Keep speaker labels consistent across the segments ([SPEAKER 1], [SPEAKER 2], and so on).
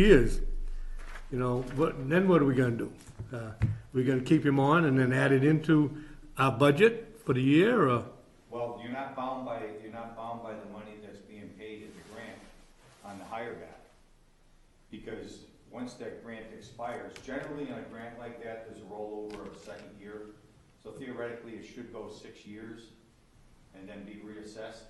[SPEAKER 1] years, you know, what, then what are we gonna do? Uh, We gonna keep him on and then add it into our budget for the year, or?
[SPEAKER 2] Well, you're not bound by, you're not bound by the money that's being paid as a grant on the hire back. Because once that grant expires, generally on a grant like that, there's a rollover of a second year. So theoretically, it should go six years and then be reassessed.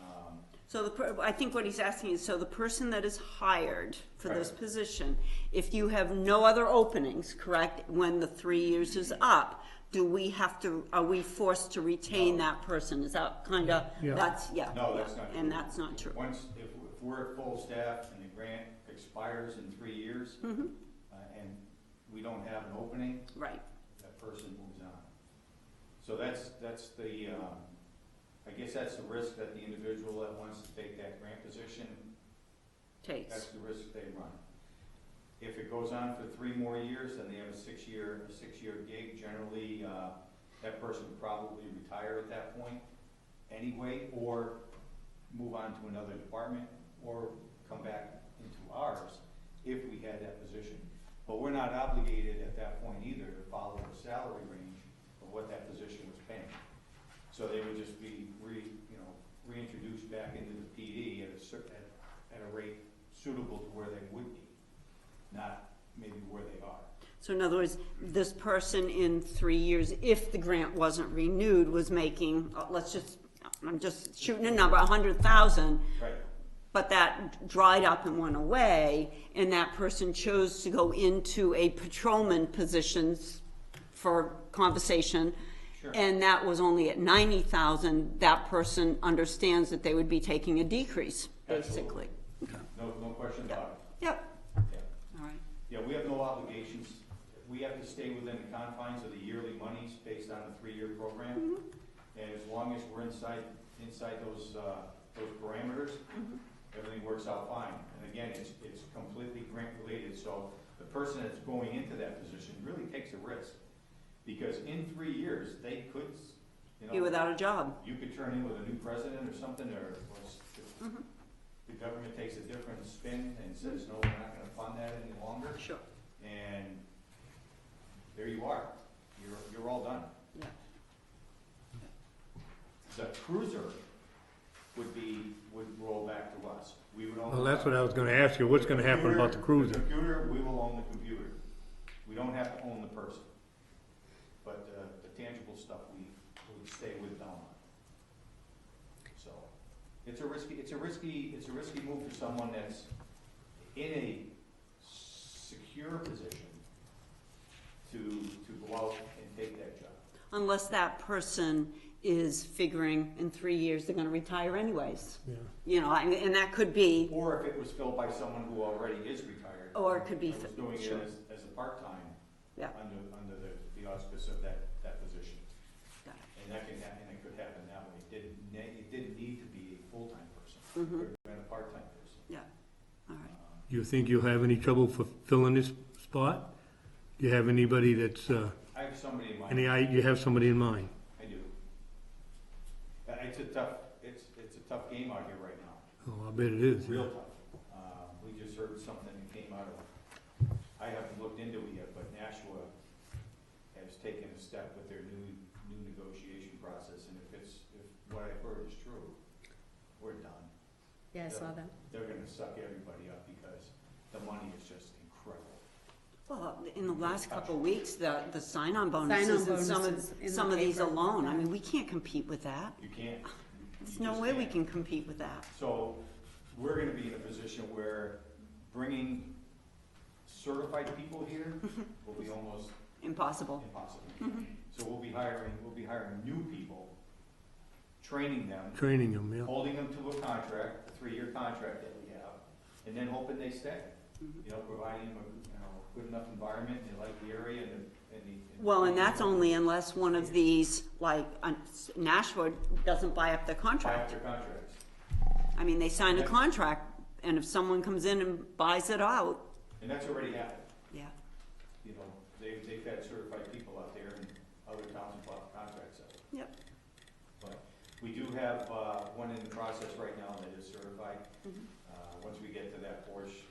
[SPEAKER 2] Um,
[SPEAKER 3] So the, per- I think what he's asking is, so the person that is hired for this
[SPEAKER 2] Right.
[SPEAKER 3] position, if you have no other openings, correct, when the three years is up, do we have to, are we forced to retain that person? Is that kinda,
[SPEAKER 1] Yeah.
[SPEAKER 3] that's, yeah.
[SPEAKER 2] No, that's not true.
[SPEAKER 3] And that's not true.
[SPEAKER 2] Once, if, if we're at full staff and the grant expires in three years,
[SPEAKER 3] Mm-hmm.
[SPEAKER 2] uh, and we don't have an opening,
[SPEAKER 3] Right,
[SPEAKER 2] that person moves on. So that's, that's the, um, I guess that's the risk that the individual that wants to take that grant position, that's
[SPEAKER 3] takes,
[SPEAKER 2] the risk they run. If it goes on for three more years, then they have a six-year, a six-year gig, generally, uh, that person would probably retire at that point anyway, or move on to another department, or come back into ours if we had that position. But we're not obligated at that point either to follow the salary range of what that position was paying. So they would just be re, you know, reintroduced back into the PD at a cer, at, at a rate suitable to where they would be, not maybe where they are.
[SPEAKER 3] so in other words, this person in three years, if the grant wasn't renewed, was making, uh, let's just, I'm just shooting a number, a hundred thousand,
[SPEAKER 2] Right.
[SPEAKER 3] but that dried up and went away, and that person chose to go into a patrolman positions for conversation.
[SPEAKER 2] Sure.
[SPEAKER 3] And that was only at ninety thousand, that person understands that they would be taking a decrease, basically.
[SPEAKER 2] Absolutely. No, no question about
[SPEAKER 3] Yep,
[SPEAKER 2] it. Yeah.
[SPEAKER 3] all right,
[SPEAKER 2] Yeah, we have no obligations. We have to stay within the confines of the yearly monies based on a three-year program.
[SPEAKER 3] Mm-hmm.
[SPEAKER 2] And as long as we're inside, inside those, uh, those parameters,
[SPEAKER 3] Mm-hmm.
[SPEAKER 2] everything works out fine. And again, it's, it's completely grant-related, so the person that's going into that position really takes a risk. Because in three years, they could, you know.
[SPEAKER 3] be without a job,
[SPEAKER 2] You could turn in with a new president or something, or or s-
[SPEAKER 3] Mm-hmm.
[SPEAKER 2] the government takes a different spin and says, no, we're not gonna fund that any longer.
[SPEAKER 3] sure,
[SPEAKER 2] And there you are. You're, you're all done.
[SPEAKER 3] yeah,
[SPEAKER 2] The cruiser would be, would roll back to us. We would own.
[SPEAKER 1] Well, that's what I was gonna ask you, what's gonna happen about the cruiser?
[SPEAKER 2] Computer, we will own the computer. We don't have to own the person. But uh, the tangible stuff we would stay with Belmont. So it's a risky, it's a risky, it's a risky move for someone that's in a secure position to, to go out and take that job.
[SPEAKER 3] unless that person is figuring in three years they're gonna retire anyways.
[SPEAKER 1] Yeah.
[SPEAKER 3] You know, I- and that could be,
[SPEAKER 2] Or if it was filled by someone who already is retired.
[SPEAKER 3] Or it could be
[SPEAKER 2] And was
[SPEAKER 3] fi-
[SPEAKER 2] doing it
[SPEAKER 3] sure.
[SPEAKER 2] as, as a part-time.
[SPEAKER 3] Yeah.
[SPEAKER 2] Under, under the, the auspice of that, that position.
[SPEAKER 3] Got it.
[SPEAKER 2] And that can happen, and it could happen that way. It didn't, ne- it didn't need to be a full-time person.
[SPEAKER 3] Mhm.
[SPEAKER 2] It could have been a part-time person.
[SPEAKER 3] yeah, all right.
[SPEAKER 2] Um,
[SPEAKER 1] You think you'll have any trouble for filling this spot? Do you have anybody that's, uh,
[SPEAKER 2] I have somebody in mind.
[SPEAKER 1] any, i- you have somebody in mind?
[SPEAKER 2] I do. Uh, It's a tough, it's, it's a tough game out here right now,
[SPEAKER 1] Oh, I bet it is.
[SPEAKER 2] real tough. Uh, We just heard something that came out of, I haven't looked into it yet, but Nashua has taken a step with their new, new negotiation process, and if it's, if what I've heard is true, we're done.
[SPEAKER 4] Yeah, I saw that.
[SPEAKER 2] They're gonna suck everybody up because the money is just incredible.
[SPEAKER 3] Well, in the last couple of weeks, the, the sign-on bonuses
[SPEAKER 4] Sign-on
[SPEAKER 3] and some
[SPEAKER 4] bonuses in
[SPEAKER 3] of,
[SPEAKER 4] the
[SPEAKER 3] some of these
[SPEAKER 4] paper.
[SPEAKER 3] alone, I mean, we can't compete with that.
[SPEAKER 2] You can't. you
[SPEAKER 3] There's no
[SPEAKER 2] just
[SPEAKER 3] way we
[SPEAKER 2] can't.
[SPEAKER 3] can compete with that.
[SPEAKER 2] So we're gonna be in a position where bringing certified people here will be almost
[SPEAKER 3] Impossible.
[SPEAKER 2] impossible.
[SPEAKER 3] Mm-hmm.
[SPEAKER 2] So we'll be hiring, we'll be hiring new people, training them,
[SPEAKER 1] Training them, yeah.
[SPEAKER 2] holding them to a contract, a three-year contract that we have, and then hoping they stay.
[SPEAKER 3] Mm-hmm.
[SPEAKER 2] You know, providing them a, you know, good enough environment, they like the area and the, and the.
[SPEAKER 3] Well, and that's only unless one of these, like, uh, Nashua doesn't buy up their contract.
[SPEAKER 2] After contracts.
[SPEAKER 3] I mean, they sign a
[SPEAKER 2] Yeah.
[SPEAKER 3] contract, and if someone comes in and buys it out,
[SPEAKER 2] And that's already happened.
[SPEAKER 3] yeah,
[SPEAKER 2] You know, they've, they've had certified people out there and other towns have bought contracts out.
[SPEAKER 3] yep,
[SPEAKER 2] But we do have uh, one in the process right now that is certified. Uh, Once we get to that portion,